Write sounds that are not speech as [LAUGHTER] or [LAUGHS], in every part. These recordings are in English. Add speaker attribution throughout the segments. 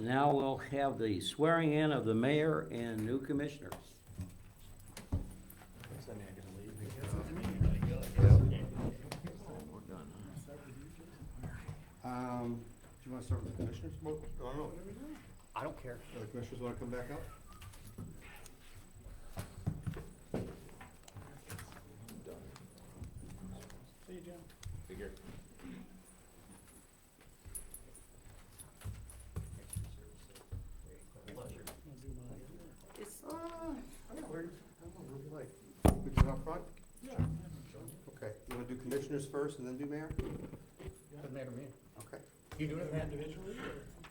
Speaker 1: Now we'll have the swearing in of the mayor and new commissioners.
Speaker 2: Um, do you wanna start with the commissioners? Well, I don't know.
Speaker 3: I don't care.
Speaker 2: Do the commissioners wanna come back up?
Speaker 4: Is-
Speaker 2: Uh, I'm not worried. I don't know, really like. We can up front? Yeah. Okay, you wanna do commissioners first and then do mayor?
Speaker 3: Doesn't matter to me.
Speaker 2: Okay,
Speaker 3: You doing it, man?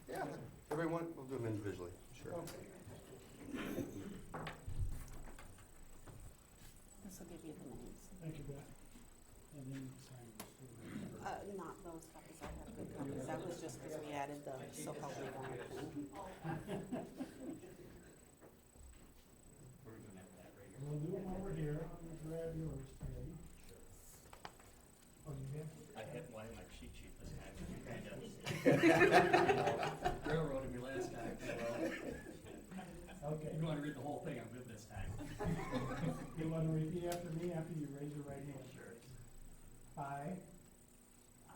Speaker 2: yeah, everyone, we'll do them individually, sure.
Speaker 4: This will give you the names.
Speaker 5: Thank you, Beth. And then sign this.
Speaker 4: Uh, not those copies, I have good copies, that was just because we added the so-called legal action.
Speaker 5: We'll do them over here, I'm gonna grab yours, Patty. Oh, you have?
Speaker 6: I had one in my cheat sheet this time, and you kind of
Speaker 2: [LAUGHS]
Speaker 6: railroaded me last time. so,
Speaker 5: Okay,
Speaker 6: If you want to read the whole thing, I'm good this time.
Speaker 5: you wanna repeat after me after you raise your right hand? I,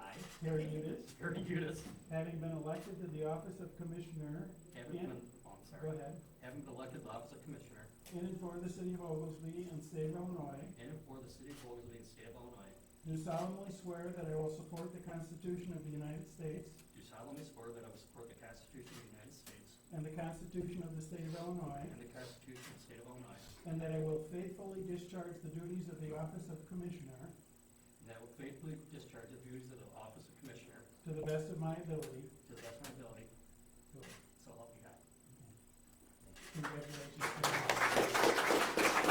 Speaker 6: I,
Speaker 5: Harry Udis,
Speaker 6: Harry Judas,
Speaker 5: having been elected to the office of Commissioner,
Speaker 6: having been, oh, I'm
Speaker 5: go
Speaker 6: sorry,
Speaker 5: ahead,
Speaker 6: having been elected to the office of Commissioner
Speaker 5: in and for the city of Oglesby and state of Illinois,
Speaker 6: in and for the city of Oglesby and state of Illinois,
Speaker 5: do solemnly swear that I will support the Constitution of the United States
Speaker 6: do solemnly swear that I will support the Constitution of the United States
Speaker 5: and the Constitution of the state of Illinois,
Speaker 6: and the Constitution of the state of Illinois,
Speaker 5: and that I will faithfully discharge the duties of the office of Commissioner
Speaker 6: and that I will faithfully discharge the duties of the office of Commissioner
Speaker 5: To the best of my ability.
Speaker 6: to the best of my ability, so help me God.
Speaker 5: Congratulations.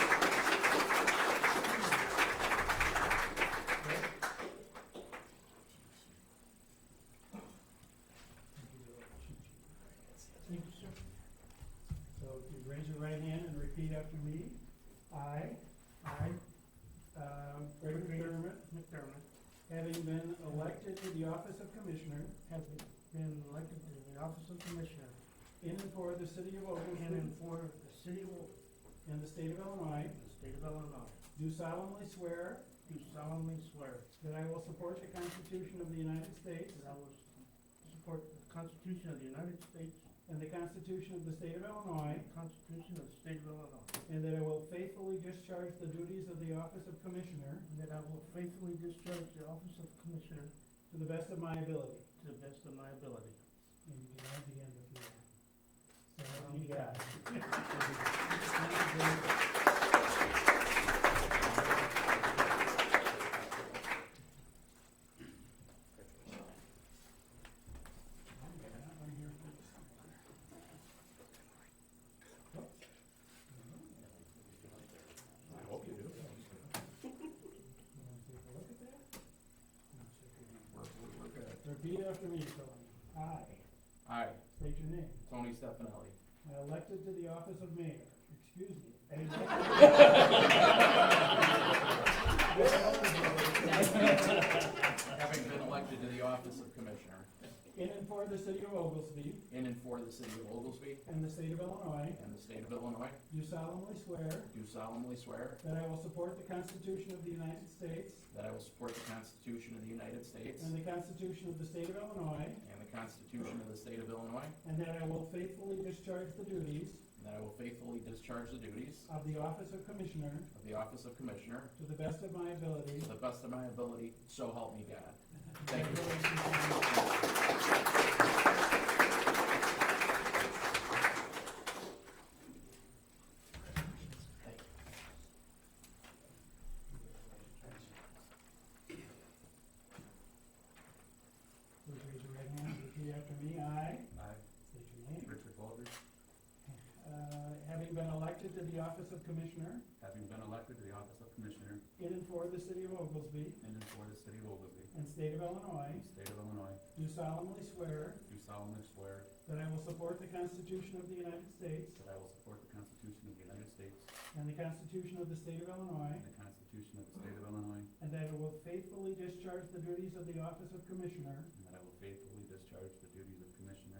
Speaker 5: Thank you, sir. So if you raise your right hand and repeat after me. I, I, um, Greg McDermott, McDermott, having been elected to the office of Commissioner, have been elected to the office of Commissioner in and for the city of Oglesby. And for the city of And the state of Illinois. the state of Illinois. Do solemnly swear. Do solemnly swear. That I will support the Constitution of the United States. That I will support the Constitution of the United States. And the Constitution of the state of Illinois. Constitution of the state of Illinois. And that I will faithfully discharge the duties of the office of Commissioner. And that I will faithfully discharge the office of Commissioner. To the best of my ability. To the best of my ability. And you can add the end if you want. So help me God. Repeat after me, Tony. I,
Speaker 7: I,
Speaker 5: state your name.
Speaker 7: Tony Stefanelli,
Speaker 5: I elected to the office of mayor, excuse me.
Speaker 7: [LAUGHS] having been elected to the office of Commissioner
Speaker 5: In and for the city of Oglesby
Speaker 7: in and for the city of Oglesby
Speaker 5: and the state of Illinois,
Speaker 7: and the state of Illinois,
Speaker 5: do solemnly swear
Speaker 7: do solemnly swear
Speaker 5: that I will support the Constitution of the United States
Speaker 7: that I will support the Constitution of the United States
Speaker 5: and the Constitution of the state of Illinois,
Speaker 7: and the Constitution of the state of Illinois,
Speaker 5: and that I will faithfully discharge the duties
Speaker 7: and that I will faithfully discharge the duties
Speaker 5: of the office of commissioner
Speaker 7: of the office of Commissioner
Speaker 5: to the best of my ability.
Speaker 7: to the best of my ability, so help me God. Thank you.
Speaker 5: Please raise your right hand and repeat after me. I
Speaker 7: I,
Speaker 5: state your name.
Speaker 7: Richard Baldridge,
Speaker 5: Uh, Having been elected to the office of commissioner
Speaker 7: having been elected to the office of Commissioner
Speaker 5: in and for the city of Oglesby
Speaker 7: in and for the city of Oglesby
Speaker 5: and state of Illinois,
Speaker 7: state of Illinois,
Speaker 5: do solemnly swear
Speaker 7: do solemnly swear
Speaker 5: that I will support the Constitution of the United States
Speaker 7: That I will support the Constitution of the United States
Speaker 5: and the Constitution of the state of Illinois,
Speaker 7: and the Constitution of the State of Illinois,
Speaker 5: and that I will faithfully discharge the duties of the office of commissioner
Speaker 7: and that I will faithfully discharge the duties of Commissioner